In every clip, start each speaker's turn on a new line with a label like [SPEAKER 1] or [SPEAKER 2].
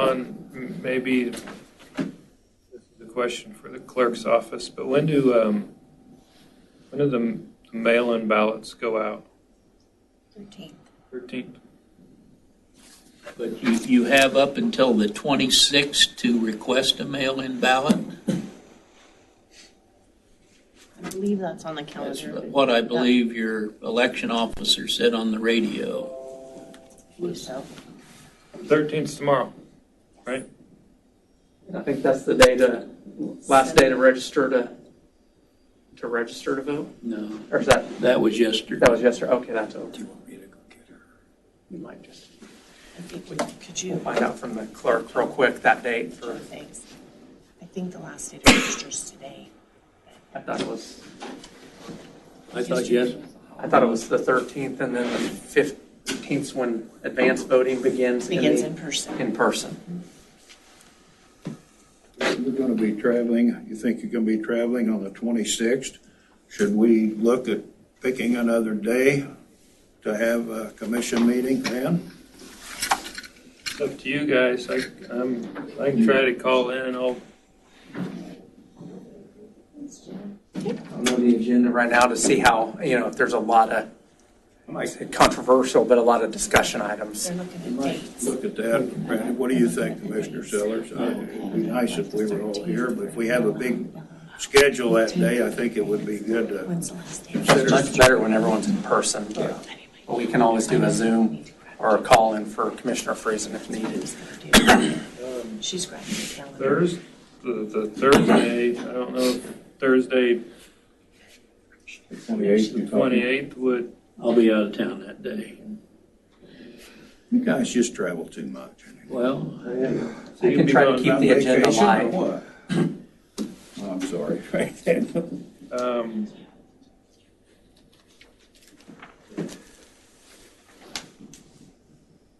[SPEAKER 1] John, m- maybe this is a question for the clerk's office, but when do, um, when do the m- the mail-in ballots go out?
[SPEAKER 2] 13th.
[SPEAKER 1] 13th?
[SPEAKER 3] But you, you have up until the 26th to request a mail-in ballot?
[SPEAKER 2] I believe that's on the
[SPEAKER 3] That's
[SPEAKER 2] calendar.
[SPEAKER 3] what I believe your election officer said on the radio.
[SPEAKER 2] I believe so.
[SPEAKER 1] 13th's tomorrow.
[SPEAKER 4] I think that's the day to, last day to register to, to register to vote?
[SPEAKER 3] No,
[SPEAKER 4] Or is that,
[SPEAKER 3] that was yesterday.
[SPEAKER 4] that was yesterday? Okay, that's over. We might just
[SPEAKER 2] I think we, could you,
[SPEAKER 4] find out from the clerk real quick that date for,
[SPEAKER 2] thanks. I think the last day to register is today.
[SPEAKER 4] I thought it was,
[SPEAKER 3] I thought yes,
[SPEAKER 4] I thought it was the 13th and then the 15th's when advance voting begins in
[SPEAKER 2] Begins in
[SPEAKER 4] the,
[SPEAKER 2] person.
[SPEAKER 4] in person.
[SPEAKER 5] You're going to be traveling, you think you're going to be traveling on the 26th? Should we look at picking another day to have a commission meeting then?
[SPEAKER 1] It's up to you guys. I, I'm, I can try to call in and I'll,
[SPEAKER 4] I don't know the agenda right now to see how, you know, if there's a lot of, I might say controversial, but a lot of discussion items.
[SPEAKER 2] They're looking at dates.
[SPEAKER 5] Look at that. Randy, what do you think, Commissioner Sellers? Uh, It'd be nice if we were all here, but if we have a big schedule that day, I think it would be good to
[SPEAKER 2] When's the last day?
[SPEAKER 4] It's much better when everyone's in person, but but we can always do a Zoom or a call-in for Commissioner Friesen if needed.
[SPEAKER 1] um,
[SPEAKER 2] She's grabbing the calendar.
[SPEAKER 1] Thursday, the Thursday, I don't know, if Thursday, 28th would,
[SPEAKER 3] I'll be out of town that day.
[SPEAKER 5] You guys just travel too much.
[SPEAKER 3] Well, I-
[SPEAKER 1] so
[SPEAKER 4] I
[SPEAKER 1] you'd
[SPEAKER 4] can
[SPEAKER 1] be
[SPEAKER 4] try to
[SPEAKER 1] gone
[SPEAKER 4] keep
[SPEAKER 5] On
[SPEAKER 4] the agenda
[SPEAKER 5] vacation or
[SPEAKER 4] live.
[SPEAKER 5] what? Oh, I'm sorry.
[SPEAKER 1] Um,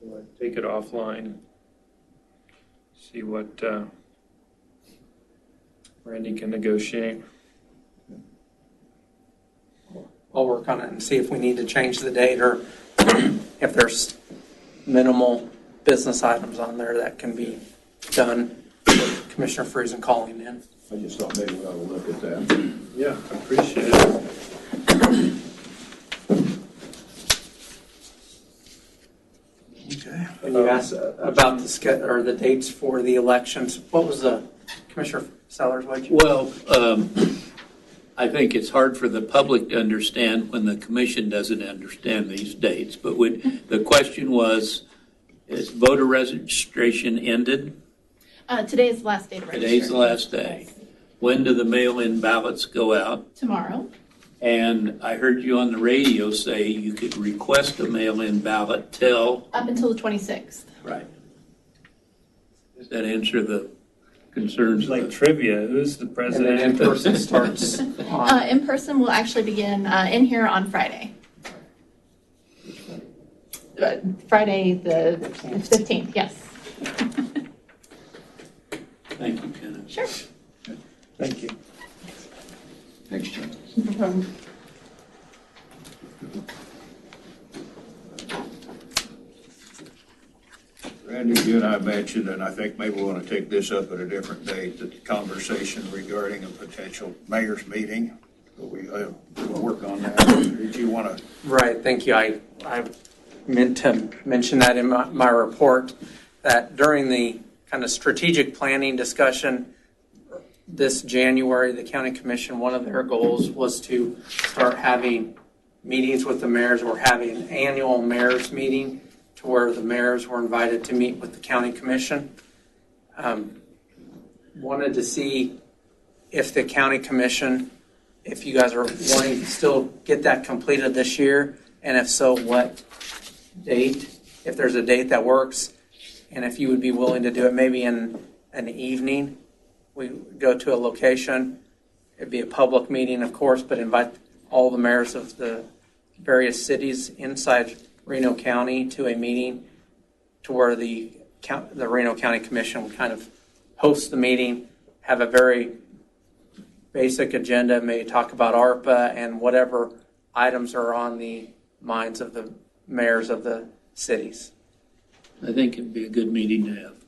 [SPEAKER 1] well, I'd Take it offline, see what uh, Randy can negotiate.
[SPEAKER 4] I'll work on it and see if we need to change the date or if there's minimal business items on there that can be done. with Commissioner Friesen calling in.
[SPEAKER 5] I just thought maybe we ought to look at that.
[SPEAKER 1] Yeah, I appreciate it.
[SPEAKER 5] Okay.
[SPEAKER 4] When you asked about the ske, or the dates for the elections, what was the, Commissioner Sellers, what you?
[SPEAKER 3] well, um, I think it's hard for the public to understand when the commission doesn't understand these dates. But would, the question was, is voter registration ended?
[SPEAKER 6] Uh, today is the last day to register.
[SPEAKER 3] Today's the last day. When do the mail-in ballots go out?
[SPEAKER 6] Tomorrow.
[SPEAKER 3] And I heard you on the radio say you could request a mail-in ballot till.
[SPEAKER 6] Up until the 26th.
[SPEAKER 3] Right. Does that answer the concerns?
[SPEAKER 1] It's like
[SPEAKER 3] of
[SPEAKER 1] trivia, who's the
[SPEAKER 4] And then
[SPEAKER 1] president?
[SPEAKER 4] in person starts on,
[SPEAKER 6] Uh, in person will actually begin uh, in here on Friday. Uh, Friday the 15th, yes.
[SPEAKER 3] the- Thank you, Kenneth.
[SPEAKER 6] Sure.
[SPEAKER 1] Thank you.
[SPEAKER 5] Thanks, Jim. Randy, you and I mentioned, and I think maybe we want to take this up at a different date, that the conversation regarding a potential mayor's meeting, but we, uh, we'll work on that. Did you want to,
[SPEAKER 4] right, thank you. I, I meant to mention that in my, my report, that during the kind of strategic planning discussion this January, the county commission, one of their goals was to start having meetings with the mayors. We're having an annual mayor's meeting to where the mayors were invited to meet with the county commission. Um, Wanted to see if the county commission, if you guys are wanting to still get that completed this year, and if so, what date, if there's a date that works, and if you would be willing to do it maybe in an evening. We go to a location, it'd be a public meeting, of course, but invite all the mayors of the various cities inside Reno County to a meeting to where the, coun- the Reno County Commission would kind of host the meeting, have a very basic agenda, may talk about ARPA and whatever items are on the minds of the mayors of the cities.
[SPEAKER 3] I think it'd be a good meeting to have.